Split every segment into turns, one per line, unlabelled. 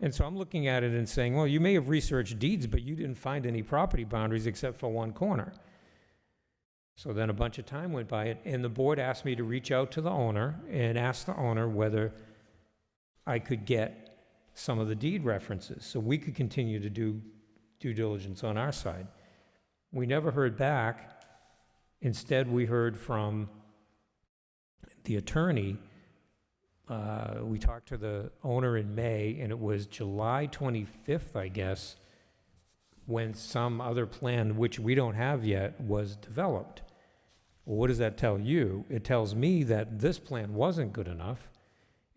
And so I'm looking at it and saying, well, you may have researched deeds, but you didn't find any property boundaries except for one corner. So then a bunch of time went by, and- and the board asked me to reach out to the owner and ask the owner whether I could get some of the deed references, so we could continue to do due diligence on our side. We never heard back. Instead, we heard from the attorney. Uh, We talked to the owner in May, and it was July 25th, I guess, when some other plan, which we don't have yet, was developed. Well, What does that tell you? It tells me that this plan wasn't good enough,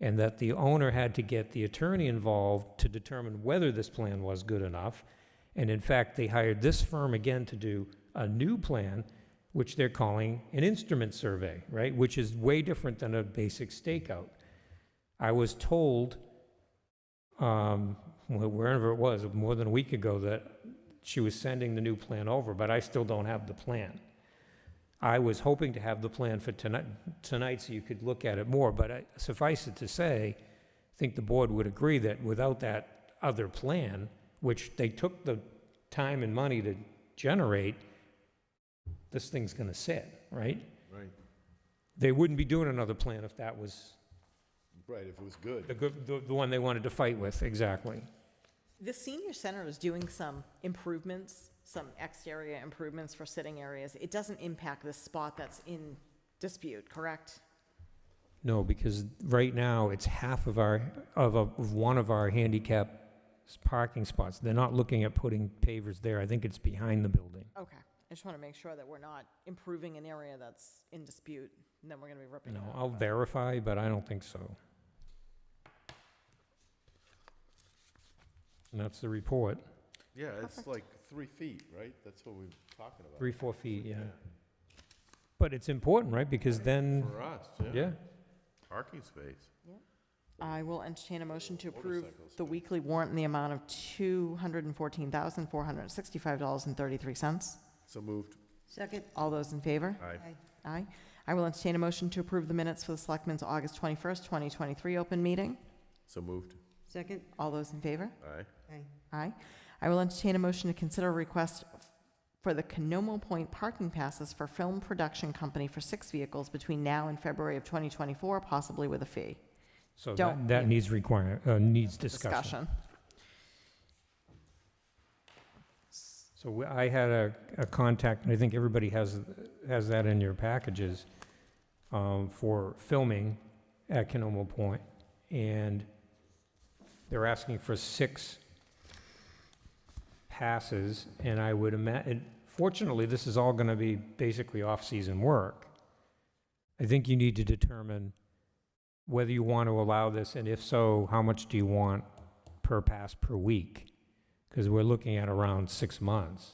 and that the owner had to get the attorney involved to determine whether this plan was good enough. And in fact, they hired this firm again to do a new plan, which they're calling an instrument survey, right? Which is way different than a basic stakeout. I was told, um, wh- wherever it was, more than a week ago, that she was sending the new plan over, but I still don't have the plan. I was hoping to have the plan for tonight, tonight so you could look at it more, but I- suffice it to say, I think the board would agree that without that other plan, which they took the time and money to generate, this thing's gonna sit, right?
Right,
They wouldn't be doing another plan if that was
right, if it was good.
the, good- the the one they wanted to fight with, exactly.
The senior center is doing some improvements, some exterior improvements for sitting areas. It doesn't impact the spot that's in dispute, correct?
No, because right now, it's half of our, of, a, of one of our handicap s- parking spots. They're not looking at putting pavers there. I think it's behind the building.
Okay, I just want to make sure that we're not improving an area that's in dispute, and then we're going to be ripping
You
it
know,
up.
I'll verify, but I don't think so. And that's the report.
Yeah, it's like three feet, right? That's what we're talking about.
Three, four feet, yeah. But it's important, right? Because then,
For uh, us, yeah.
yeah,
Parking space.
I will entertain a motion to approve the weekly warrant in the amount of $214,465.33.
So moved.
Second,
All those in favor?
Aye.
Aye. I will entertain a motion to approve the minutes for the Selectmen's August 21st, 2023 open meeting.
So moved.
second,
All those in favor?
Aye.
aye,
Aye. I will entertain a motion to consider a request for the Canomo Point parking passes for Film Production Company for six vehicles between now and February of 2024, possibly with a fee.
so that,
Don't-
that needs require, uh, needs discussion.
Discussion.
So we- I had a, a contact, and I think everybody has, has that in your packages, um, for filming at Canomo Point, and they're asking for six passes, and I would imagine, fortunately, this is all gonna be basically off-season work. I think you need to determine whether you want to allow this, and if so, how much do you want per pass per week? Because we're looking at around six months.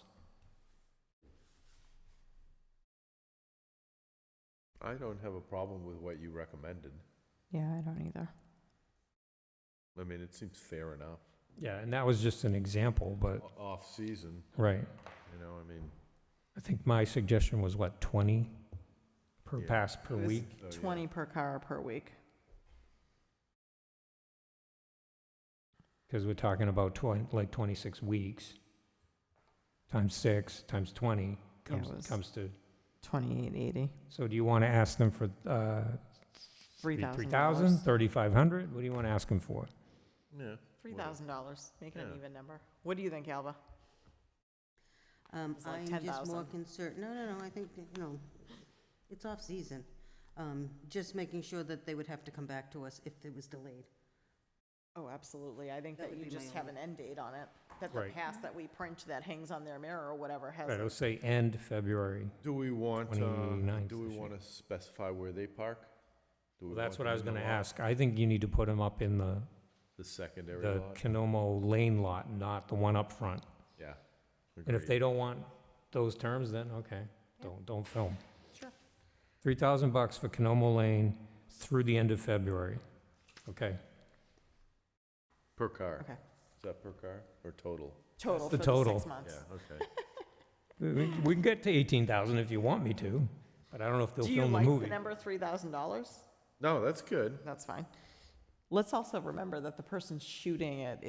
I don't have a problem with what you recommended.
Yeah, I don't either.
Oh, I mean, it seems fair enough.
Yeah, and that was just an example, but,
O- Off-season,
right.
you know, I mean.
I think my suggestion was, what, 20 per
Yeah.
pass per
It was
week?
so, yeah.
20 per car per week.
Because we're talking about 20, like 26 weeks, times six, times 20,
Yeah, it
comes,
was
comes to,
2880,
so do you want to ask them for uh, $3,000,
$3,000.
$3,500? What do you want to ask them for?
Yeah.
$3,000, making an
Yeah.
even number. What do you think, Alba?
Um,
It's like
I'm just more
10,000.
concerned, no, no, no, I think, that, you know, it's off-season. Um, just making sure that they would have to come back to us if it was delayed.
Oh, absolutely. I think
That
that
would
you
be my
just have an end date on it, that the
Right.
pass that we print that hangs on their mirror or whatever has.
Right,
a-
It'll say end February.
Do we want, uh,
29th
do we
this year.
want to specify where they park? Do we
Well, That's what
want
I
them
was
in
going
the
to
lot?
ask. I think you need to put them up in the,
The secondary
the
lot?
Canomo Lane lot, not the one up front.
Yeah.
And if
Agreed.
they don't want those terms, then, okay, don't, don't film.
Sure.
Three thousand bucks for Canomo Lane through the end of February. Okay,
Per car.
Okay.
Is that per car or total?
Total
the
for the
total.
six months.
okay.
we, we- we can get to eighteen thousand if you want me to, but I don't know if they'll
Do you
film a
like
movie.
the number $3,000?
No, that's good.
That's fine. Let's also remember that the person shooting it